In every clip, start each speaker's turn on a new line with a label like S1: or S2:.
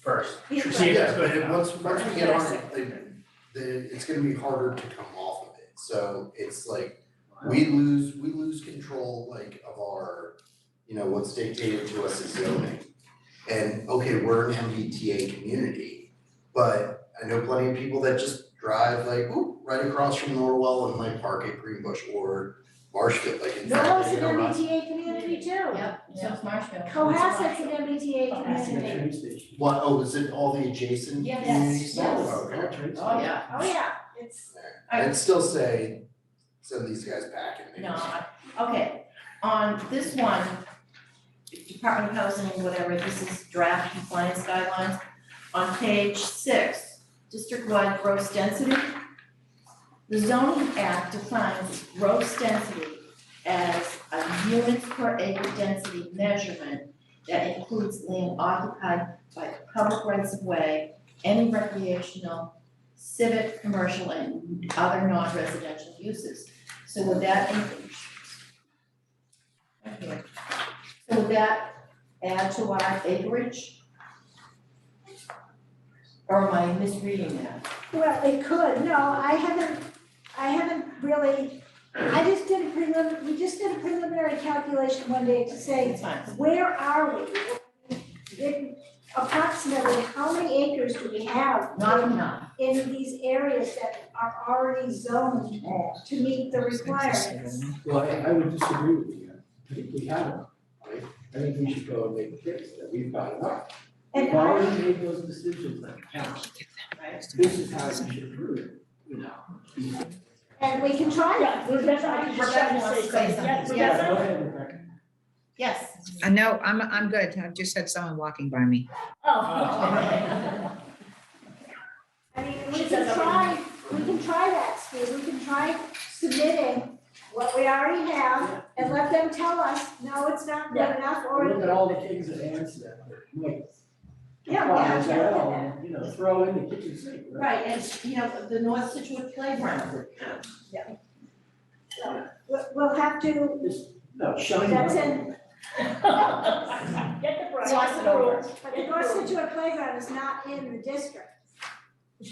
S1: first.
S2: Yeah,
S1: Sure,
S2: but-
S1: see,
S3: Yeah,
S1: that's
S3: but
S1: good.
S3: it- once, once we get
S2: Yeah,
S3: on,
S2: second.
S3: the, the, it's gonna be harder to come off of it, so it's like, we lose, we lose control like of our, you know, what's dictated to us is zoning. And, okay, we're an MBTA community, but I know plenty of people that just drive like, ooh, right across from Norwell and like park at Greenbush or Marshfield, like in fact,
S4: Norwell's
S3: they
S4: an
S3: don't run.
S4: MBTA community too.
S2: Yep, so it's Marshfield.
S4: Cohasset's an MBTA
S5: Passing a
S4: community.
S5: train station.
S3: What, oh, is it all the adjacent
S2: Yes.
S3: communities?
S2: Yes.
S3: Oh, okay.
S5: Train
S2: Oh,
S5: station.
S2: yeah.
S4: Oh, yeah, it's,
S2: I-
S3: I'd still say, send these guys back and maybe.
S2: No, I- okay, on this one, Department of Housing, whatever, this is draft compliance guidelines. On page six, district-wide gross density. The zoning act defines gross density as a units per acre density measurement that includes land occupied by public rights of way, any recreational, civic, commercial, and other non-residential uses. So would that include? Okay. So would that add to our acreage? Or am I misreading that?
S4: well, it could, no, I haven't, I haven't really, I just did a prelim, we just did a preliminary calculation one day to say,
S2: It's fine.
S4: where are we? In- Approximately, how many acres do we have?
S2: Not enough.
S4: in these areas that are already zoned to meet the requirements.
S5: Well, I, I would disagree with you, I think we have enough, right? I think we should go and make a case that we've got enough.
S4: And
S5: We've already made those decisions on council.
S2: Right.
S5: This is how we should prove it, you know?
S4: And we can try
S6: Yeah,
S4: that.
S6: Rebecca, I was just trying to say something. Yeah,
S2: Rebecca wants to say something.
S5: Yeah,
S6: Rebecca?
S5: go ahead, Rebecca.
S2: Yes.
S7: Uh, no, I'm, I'm good. I've just had someone walking by me.
S6: Oh.
S4: I mean, we
S6: She
S4: can
S6: said
S4: try, we can try that, Steve, we can try submitting what we already have and let them tell us, no, it's not good
S6: Yeah.
S4: enough,
S5: Look
S4: or,
S5: at all the things that answer that, but, like,
S4: Yeah,
S5: comply
S4: yeah, yeah,
S5: as well,
S4: yeah.
S5: and, you know, throw in the kitchen sink, right?
S2: Right, and you know, the North Situate playground.
S4: so, we'll, we'll have to,
S5: Just, no, shine.
S4: That's
S5: light.
S4: in-
S6: Get the brush.
S2: Gloss it over.
S4: but the North Situate playground is not in the district. You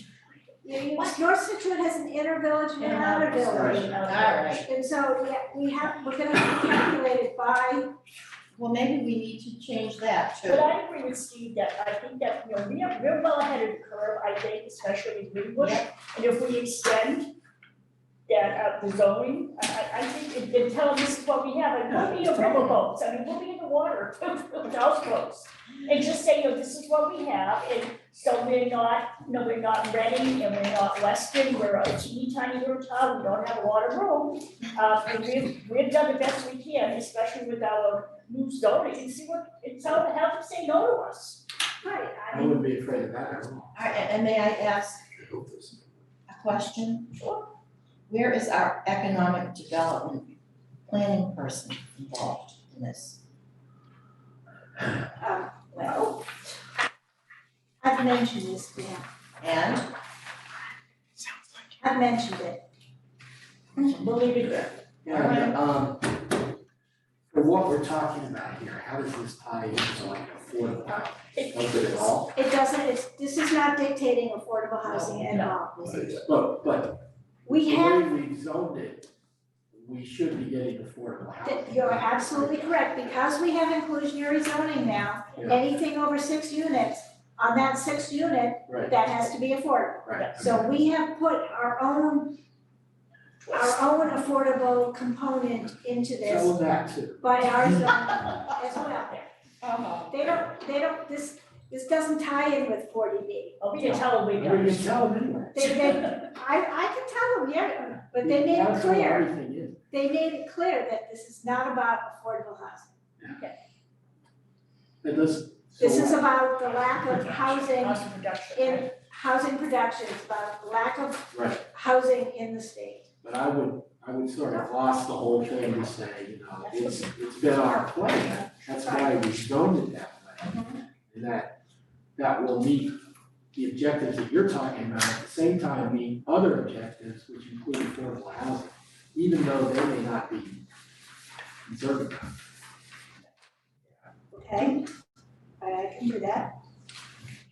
S4: know, you- North Situate has an inner village and an outer village,
S2: All right.
S4: and so, yeah, we have, we're gonna have to calculate it by
S2: Well, maybe we need to change that
S6: But
S2: too.
S6: I agree with Steve that I think that, you know, we are, we're well ahead of the curve, I think, especially in Greenbush. And if we extend that, uh, the zoning, I, I, I think, and- and tell them this is what we have, and we'll be in riverboats, I mean, we'll be in the water with houseboats. And just say, you know, this is what we have, and so we're not, no, we're not Reading and we're not Weston, we're a teeny tiny little town, we don't have a lot of room. Uh, and we've, we've done the best we can, especially with our new zoning, and see what, it's how to have them say no to us.
S4: Right, I
S5: I
S4: mean,
S5: wouldn't be afraid of that at all.
S2: All right, and and may I ask
S3: I hope there's-
S2: a question?
S6: Sure.
S2: Where is our economic development planning person involved in this?
S4: um, well, I've mentioned this, yeah,
S2: And
S4: I've mentioned it.
S2: We'll leave it there.
S5: Yeah, but, um, for what we're talking about here, how does this tie into like affordable
S4: Uh,
S5: housing? Does it at all?
S4: It doesn't, it's, this is not dictating affordable housing at all.
S5: But, but the
S4: We
S5: way
S4: have,
S5: we zoned it, we should be getting affordable housing.
S4: you're absolutely correct, because we have inclusionary zoning now,
S5: Yeah.
S4: anything over six units, on that sixth unit,
S5: Right,
S4: that has to be affordable.
S5: right.
S4: So we have put our own, our own affordable component into
S5: Tell
S4: this
S5: them that too.
S4: by our zoning as well.
S2: Uh-huh.
S4: They don't, they don't, this, this doesn't tie in with forty B.
S6: Oh, we can tell them we
S5: Well,
S6: know.
S5: you tell them anyway.
S4: They, they, I, I can tell them, yeah, but they made it
S5: That's what
S4: clear,
S5: everything is.
S4: they made it clear that this is not about affordable housing.
S5: It does.
S4: This
S5: so
S4: is about the lack of housing
S6: Cost of production, right?
S4: in, housing production, it's about the lack of
S5: Right.
S4: housing in the state.
S5: But I would, I would sort of gloss the whole thing to say, you know, it's, it's been our plan, that's why we zoned it that way. And that, that will meet the objectives that you're talking about, at the same time meet other objectives, which include affordable housing, even though they may not be conservative.
S4: Okay, all right, I can do that.